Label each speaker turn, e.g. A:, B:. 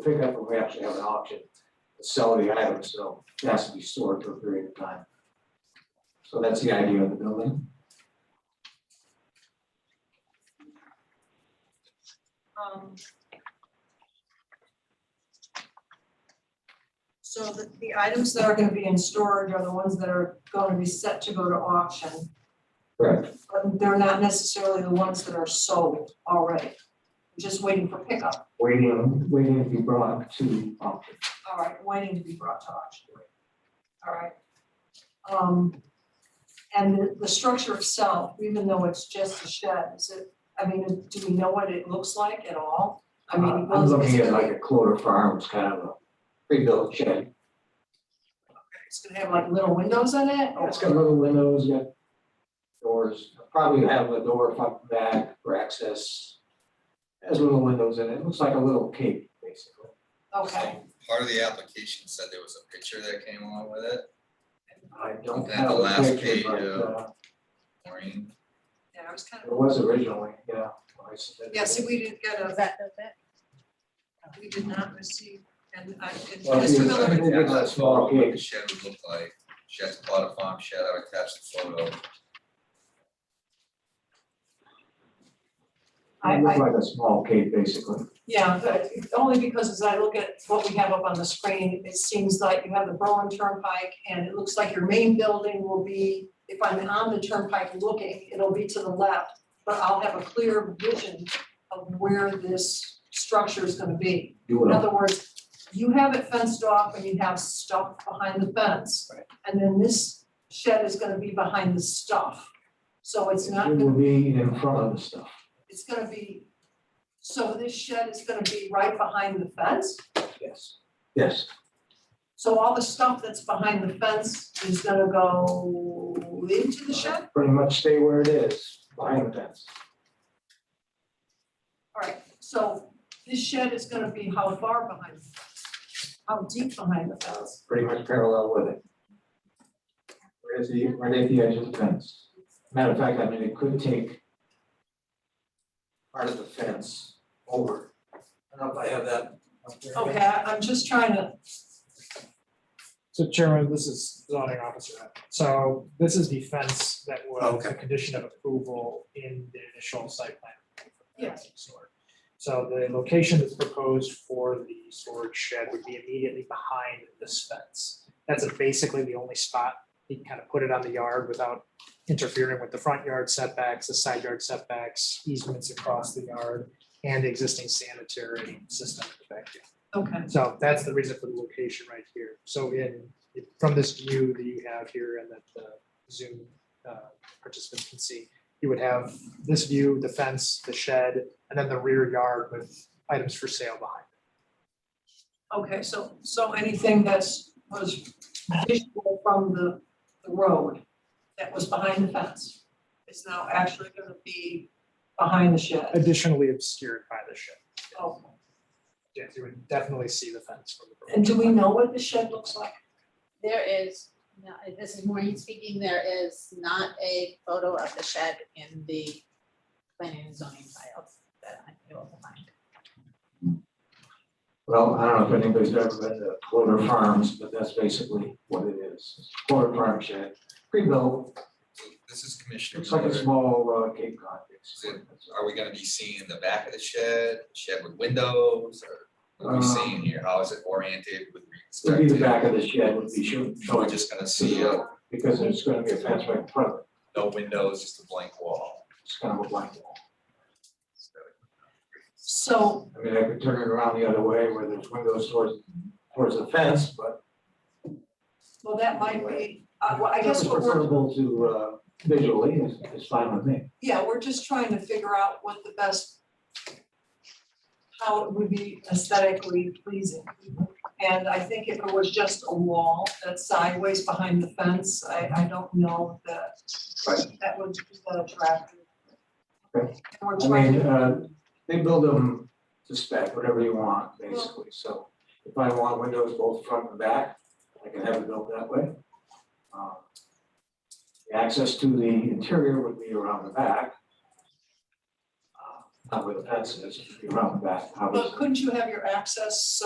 A: pickup, and we actually have an auction to sell the item, so it has to be stored for a period of time. So that's the idea of the building.
B: Um, So the, the items that are gonna be in storage are the ones that are gonna be set to go to auction.
A: Correct.
B: But they're not necessarily the ones that are sold already, just waiting for pickup,
A: Waiting, waiting to be brought to auction.
B: all right, waiting to be brought to auction. All right. Um, and the, the structure itself, even though it's just a shed, is it, I mean, do we know what it looks like at all? I mean, it
A: Uh, I'm
B: goes-
A: looking
B: it's
A: at
B: gonna-
A: like a Cloder Farms kind of a pre-built shed.
B: It's gonna have like little windows in it? or-
A: It's got little windows, got doors, probably have a door front and back for access. Has little windows in it, It looks like a little cave, basically.
B: Okay,
C: Part of the application said there was a picture that came along with it,
A: I don't
C: At
A: have
C: the
A: a
C: last
A: picture,
C: page,
A: but
C: uh,
A: uh,
C: Maureen.
B: yeah, I was kind
A: it
B: of,
A: was originally, yeah. when I submitted
B: yeah,
A: it.
B: see, we didn't get
D: Was
B: a,
D: that, that's it?
B: we did not receive, and I, and
A: Well,
B: Mr.
A: you-
C: I
B: Miller,
A: think
C: attached
A: it's a
C: that
A: small
C: photo of what
A: gate.
C: the shed would look like, shed's plot of farm shed, I attached the photo.
B: I,
A: It looked
B: I,
A: like a small cave, basically.
B: yeah, but only because as I look at what we have up on the screen, it seems like you have the Berlin Turnpike, and it looks like your main building will be, if I'm on the turnpike looking, it'll be to the left, but I'll have a clear vision of where this structure is gonna be.
A: You
B: In
A: would
B: other words, you have it fenced off and you have stuff behind the fence. And then this shed is gonna be behind the stuff. So it's not,
A: It
B: gonna-
A: would be in front of the stuff.
B: it's gonna be, so this shed is gonna be right behind the fence?
A: Yes. Yes,
B: So all the stuff that's behind the fence is gonna go into the shed?
A: Uh, pretty much stay where it is, behind the fence.
B: All right, so this shed is gonna be how far behind? the fence? How deep behind the fence?
A: pretty much parallel with it. Right at the, right at the edge of the fence. Matter of fact, I mean, it could take part of the fence over. I don't know if I have that up there.
B: Okay, I- I'm just trying to,
E: So Chairman, this is zoning officer. So this is the fence that was a condition of approval in the initial site plan.
B: Yes.
E: So the location that's proposed for the storage shed would be immediately behind this fence. That's basically the only spot he can kind of put it on the yard without interfering with the front yard setbacks, the side yard setbacks, easements across the yard, and existing sanitary system in the backyard.
B: okay.
E: So that's the reason for the location right here. So in, from this view that you have here and that the Zoom uh, participants can see, you would have this view, the fence, the shed, and then the rear yard with items for sale behind.
B: Okay, so, so anything that's, was visual from the, the road that was behind the fence is now actually gonna be behind the shed.
E: Additionally obscured by the shed.
B: Oh,
E: Yes, you would definitely see the fence from the road.
B: And do we know what the shed looks like?
D: There is, no, this is Maureen speaking, there is not a photo of the shed in the planning and zoning files that I'm able to find.
A: Well, I don't know if anybody's ever been to Clover Farms, but that's basically what it is. Clover Farm shed, pre-built,
C: So This is Commissioner
A: looks like a
C: Miller,
A: small uh, Cape Cod. basically.
C: are we gonna be seeing the back of the shed, shed with windows, or what are we
A: Um,
C: seeing here, how is it oriented with
A: Would
C: respect to?
A: be the back of the shed would be show-
C: So we're
A: showing,
C: just gonna see, uh,
A: because there's gonna be a fence right in front of it.
C: no windows, just a blank wall.
A: It's kind of a blank wall.
B: So,
A: I mean, I could turn it around the other way where there's windows towards, towards the fence, but.
B: well, that might be, uh, well, I guess
A: it's
B: what we're,
A: Preferable to, uh, visually is, is fine with me.
B: yeah, we're just trying to figure out what the best, how it would be aesthetically pleasing. And I think if it was just a wall that's sideways behind the fence, I, I don't know that
A: Right.
B: that would be that attractive.
A: Okay.
B: We're
A: I
B: trying
A: mean,
B: to,
A: uh, they build them to spec, whatever you want, basically, so if I want windows both front and back, I can have it built that way. Um, The access to the interior would be around the back. Uh, Not where the fence is, it'd be around the back, obviously.
B: but couldn't you have your access